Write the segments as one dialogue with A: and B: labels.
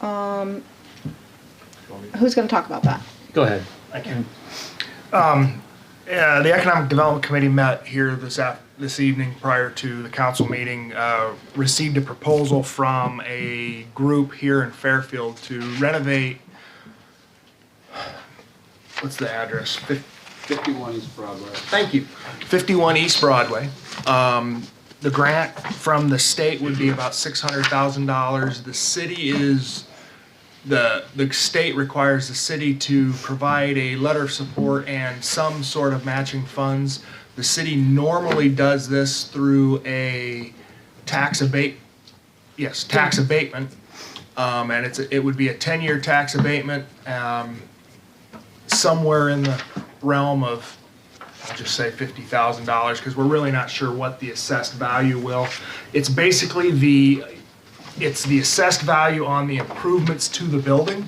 A: Um, who's going to talk about that?
B: Go ahead.
C: Thank you. Um, uh, the Economic Development Committee met here this af- this evening prior to the council meeting. Uh, received a proposal from a group here in Fairfield to renovate. What's the address? Fif-
D: 51 East Broadway.
C: Thank you. 51 East Broadway. Um, The grant from the state would be about $600,000. The city is, the, the state requires the city to provide a letter of support and some sort of matching funds. The city normally does this through a tax abate, yes, tax abatement. Um, And it's, a- it would be a 10-year tax abatement, um, somewhere in the realm of I'll just say fifty thousand dollars, because we're really not sure what the assessed value will. It's basically the, it's the assessed value on the improvements to the building.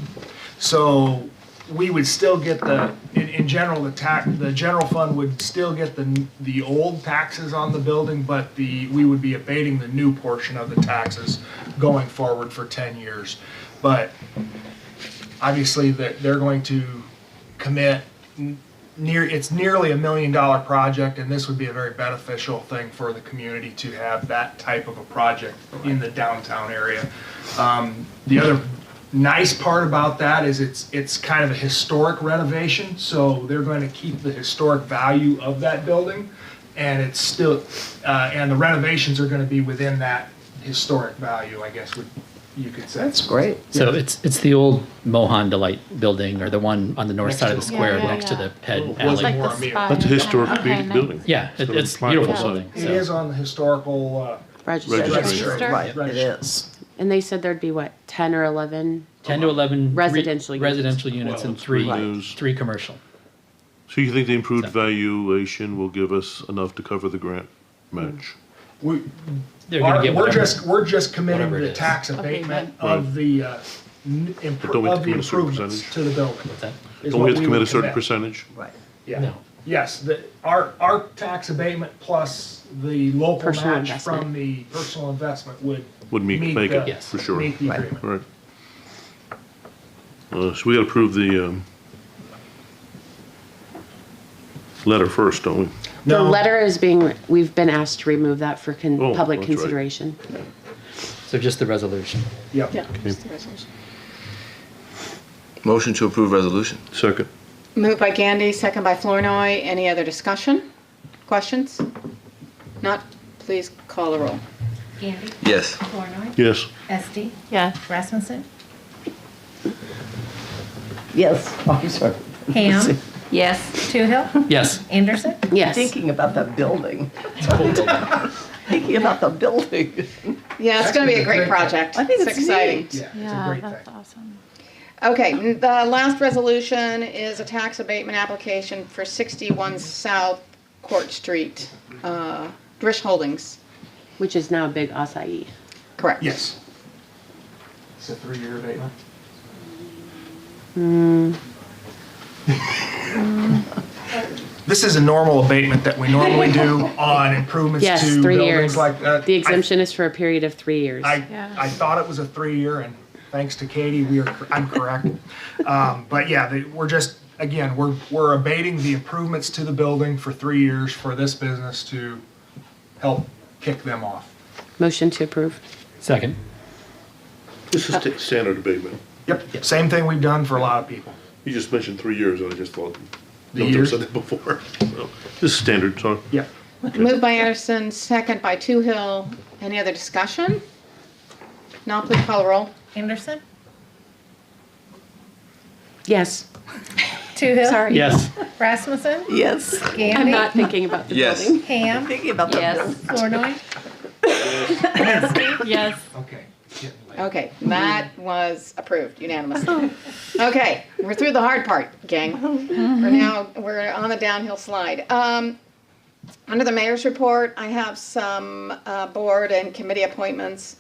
C: So we would still get the, in, in general, the tax, the general fund would still get the, the old taxes on the building, but the, we would be abating the new portion of the taxes going forward for ten years. But obviously, they're, they're going to commit near it's nearly a million dollar project and this would be a very beneficial thing for the community to have that type of a project in the downtown area um, the other nice part about that is it's it's kind of a historic renovation so they're going to keep the historic value of that building and it's still uh, and the renovations are going to be within that historic value i guess would you could say
E: That's great.
B: So it's it's the old Mohan Delight building or the one on the north
C: Next
B: side
C: to
B: of the
C: the-
B: square
F: Yeah, yeah,
B: next to
F: yeah.
B: the head
C: Well,
B: alley.
C: like-
F: the
C: more immediate.
F: spy
G: That's a
F: and-
G: historic
F: okay,
G: community
F: nice.
G: building.
B: yeah, it,
G: So
B: it's
G: not
B: beautiful
G: that-
B: building.
C: it
B: so.
C: is on the historical uh,
D: Registration.
E: Registration,
F: Register.
E: right, it
C: Register.
E: is.
H: And they said there'd be what, ten or eleven?
B: 10 to 11 re-
H: Residential units.
B: residential units
G: Well,
B: and
G: it's
B: three
G: reduced.
B: three commercial.
G: So you think the improved valuation will give us enough to cover the grant match?
C: we,
B: They're
C: Our-
B: going to get
C: We're
B: whatever.
C: just, we're just committing
B: whatever
C: to
B: it
C: the
B: is.
C: tax abatement of the, uh, n-
G: But don't
C: impro-
G: we
C: of
G: have to
C: the
G: commit a certain
C: improvements
G: percentage?
C: to the building.
B: What's that?
C: is
G: Don't
C: what
G: we have to
C: would
G: commit a certain percentage?
E: Right.
C: Yeah,
B: No.
C: yes, the, our, our tax abatement plus the local
H: Personal
C: match
H: investment.
C: from the personal investment would.
G: Would meet- make it,
C: the-
B: Yes.
G: for sure.
C: Meet the
E: Right.
C: agreement.
G: All Right. Uh, so we gotta approve the, um, letter first, don't we?
H: The
C: No.
H: letter is being, we've been asked to remove that for
G: Oh,
H: con- public
G: that's right.
H: consideration.
B: So just the resolution.
C: Yep.
A: Yeah. just the resolution.
I: Motion to approve resolution.
G: Second.
A: Moved by Gandy, second by Flournoy. Any other discussion? Questions? Not, please call the roll.
J: Gandy.
I: Yes.
J: Flornoy.
G: Yes.
J: Esti.
F: Yeah.
J: Rasmussen.
E: Yes, Oh, I'm sorry.
J: Ham.
F: Yes.
J: Toohill.
B: Yes.
J: Anderson.
H: Yes.
E: Thinking about that building. Thinking about the building.
A: Yeah, it's going to be a great project.
E: I think it's
A: exciting.
E: neat.
C: Yeah, it's a
F: Yeah,
C: great
F: that's
C: thing.
F: awesome.
A: Okay, n- the last resolution is a tax abatement application for 61 South Court Street, uh, Drish Holdings,
H: Which is now a big acai.
A: correct?
C: Yes. It's a three-year abatement.
H: Hmm.
C: This is a normal abatement that we normally do on improvements
H: Yes,
C: to
H: three
C: buildings
H: years.
C: like that.
H: The exemption is for a period of three years.
C: I,
F: Yeah.
C: I thought it was a three-year, and thanks to Katie, we are, cor- I'm correct. Um, But yeah, they- we're just, again, we're, we're abating the improvements to the building for three years for this business to help kick them off.
H: Motion to approve.
B: Second.
G: This is ta- standard abatement.
C: Yep, same thing we've done for a lot of people.
G: You just mentioned three years, and I just thought,
C: The
G: no one
C: years?
G: said that before. So, This is standard, so.
C: Yep.
A: Moved by Anderson, second by Toohill. Any other discussion? Now please call the roll.
J: Anderson.
H: Yes.
J: Toohill.
A: Sorry.
B: Yes.
J: Rasmussen.
E: Yes,
H: I'm
J: Gandy.
H: not thinking about the
I: Yes.
H: building.
J: Ham.
E: thinking about the building.
F: Yes.
J: Flornoy.
F: Yes.
C: Okay. getting late.
A: Okay, that was approved unanimously. Okay, we're through the hard part, gang. We're now, we're on the downhill slide. Um, Under the mayor's report, I have some uh, board and committee appointments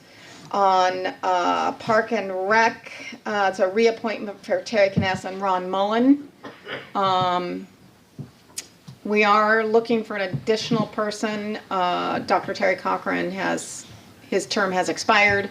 A: on uh, Park and Rec. Uh, It's a reappointment for Terry Kness and Ron Mullen. Um, We are looking for an additional person. Uh, Dr. Terry Cochran has, his term has expired.